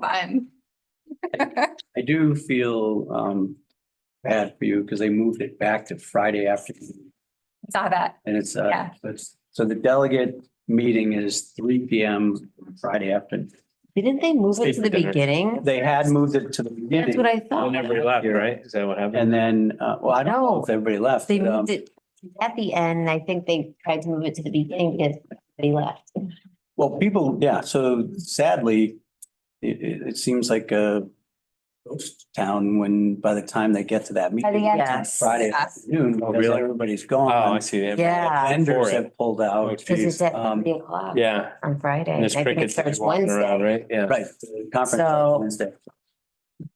fun. I do feel um bad for you because they moved it back to Friday afternoon Saw that. and it's uh, Yeah. it's, so the delegate meeting is three P M Friday afternoon. Didn't they move it to the Sleep dinner. beginning? They had moved it to the That's what beginning I thought. Whenever he left, right? Is that what happened? and then, uh, well, I don't know if everybody left. They um, moved it at the end. I think they tried to move it to the beginning because they left. Well, people, yeah, so sadly, it it it seems like a ghost town when by the time they get to that By the meeting. end. Yes. Friday Yes. afternoon, Oh, because really? everybody's Oh, I gone. see. They- Yeah. Vendors For it. have pulled Oh, out. Because it's geez. at Um, three o'clock Yeah. on Friday. And and I there's think it crickets starts walking around, Wednesday. right? Yeah. Right, the conference So- is Wednesday. So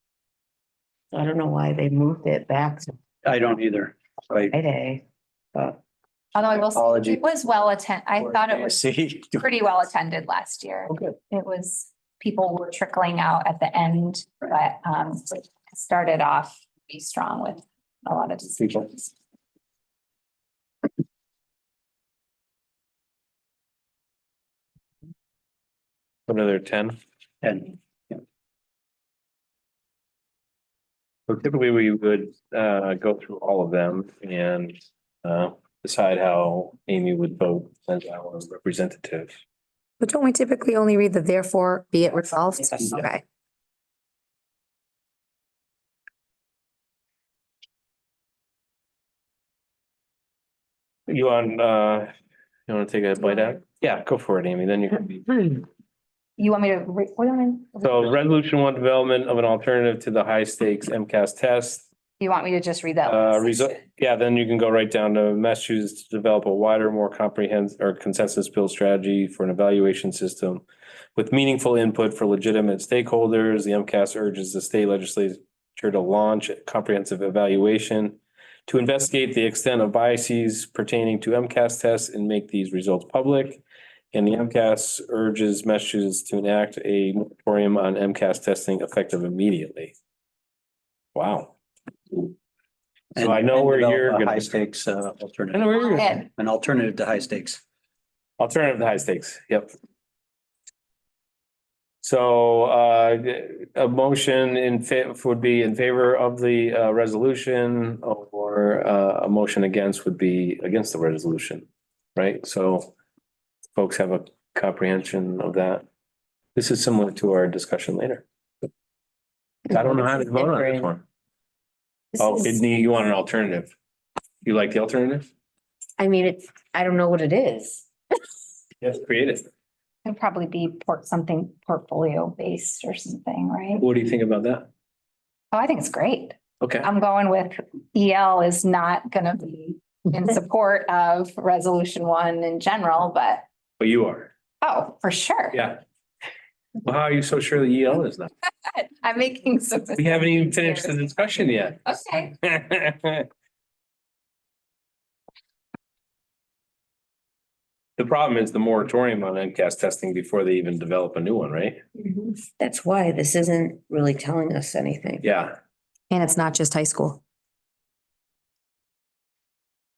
I don't know why they moved it back to I don't either. Right. Friday, but Although I will, say, Apology. it was well attended. I thought it was See. pretty well attended last year. Okay. It was, people were trickling out at the end, but um it started off be strong with a lot of decisions. Another ten. And So typically we would uh go through all of them and uh decide how Amy would vote as our representative. But don't we typically only read the therefore be it resolved? Yes. Okay. You want uh, you want to take a bite out? Yeah, go for it, Amy. Then you can be. You want me to, re- what do you want me- So resolution one, development of an alternative to the high stakes MCAS test. you want me to just read that? Uh, last result, section? yeah, then you can go right down to Massachusetts to develop a wider, more comprehensive or consensus build strategy for an evaluation system with meaningful input for legitimate stakeholders. The MCAS urges the state legislature to launch a comprehensive evaluation to investigate the extent of biases pertaining to MCAS tests and make these results public. And the MCAS urges Massachusetts to enact a moratorium on MCAS testing effective immediately. Wow. So I know and where develop you're a gonna- High stakes uh, I know alternative, where you're going. And an alternative to high stakes. Alternative to high stakes, yep. So uh, a motion in fa- would be in favor of the uh, resolution or uh, a motion against would be against the resolution, right? So folks have a comprehension of that. This is similar to our discussion later. I don't know how to vote on this one. This Oh, is- Sydney, you want an alternative? You like the alternative? I mean, it's, I don't know what it is. Yes, create it. it'd probably be port, something portfolio based or something, right? What do you think about that? Oh, I think it's great. Okay. I'm going with EL is not gonna be in support of resolution one in general, but, But you are. oh, for sure. Yeah. Well, how are you so sure the EL is not? I'm making some. We haven't even finished the discussion yet. Okay, The problem is the moratorium on MCAS testing before they even develop a new one, right? Mm-hmm. That's why this isn't really telling us anything. Yeah, And it's not just high school.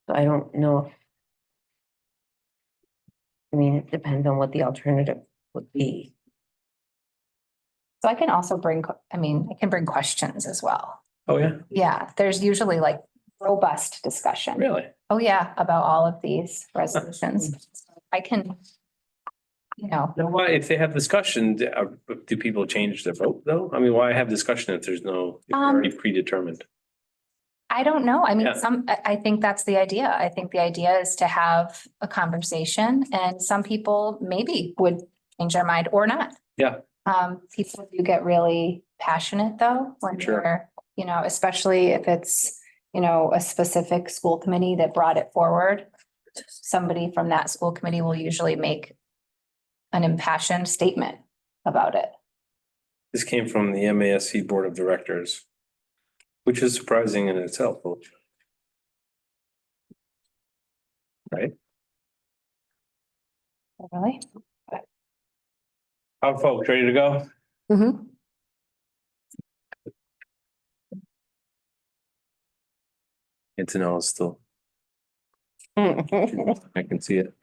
So I don't know. if- I mean, it depends on what the alternative would be. so I can also bring, que- I mean, I can bring questions as well. oh yeah, Yeah, there's usually like robust discussion. really? Oh, yeah, about all of these resolutions. I can, you know, Now, why, if they have discussion, do uh, do people change their vote though? I mean, why have discussion if there's no, if they're Um, already predetermined? I don't know. I Yeah. mean, some, I, I think that's the idea. I think the idea is to have a conversation and some people maybe would change their mind or not. Yeah. Um, people do get really passionate though, when Sure. they're, you know, especially if it's, you know, a specific school committee that brought it forward. Somebody from that school committee will usually make an impassioned statement about it. This came from the MASC Board of Directors, which is surprising in itself. Really? Our folks ready to go? Mm-hmm. Antonella still, All I can see it.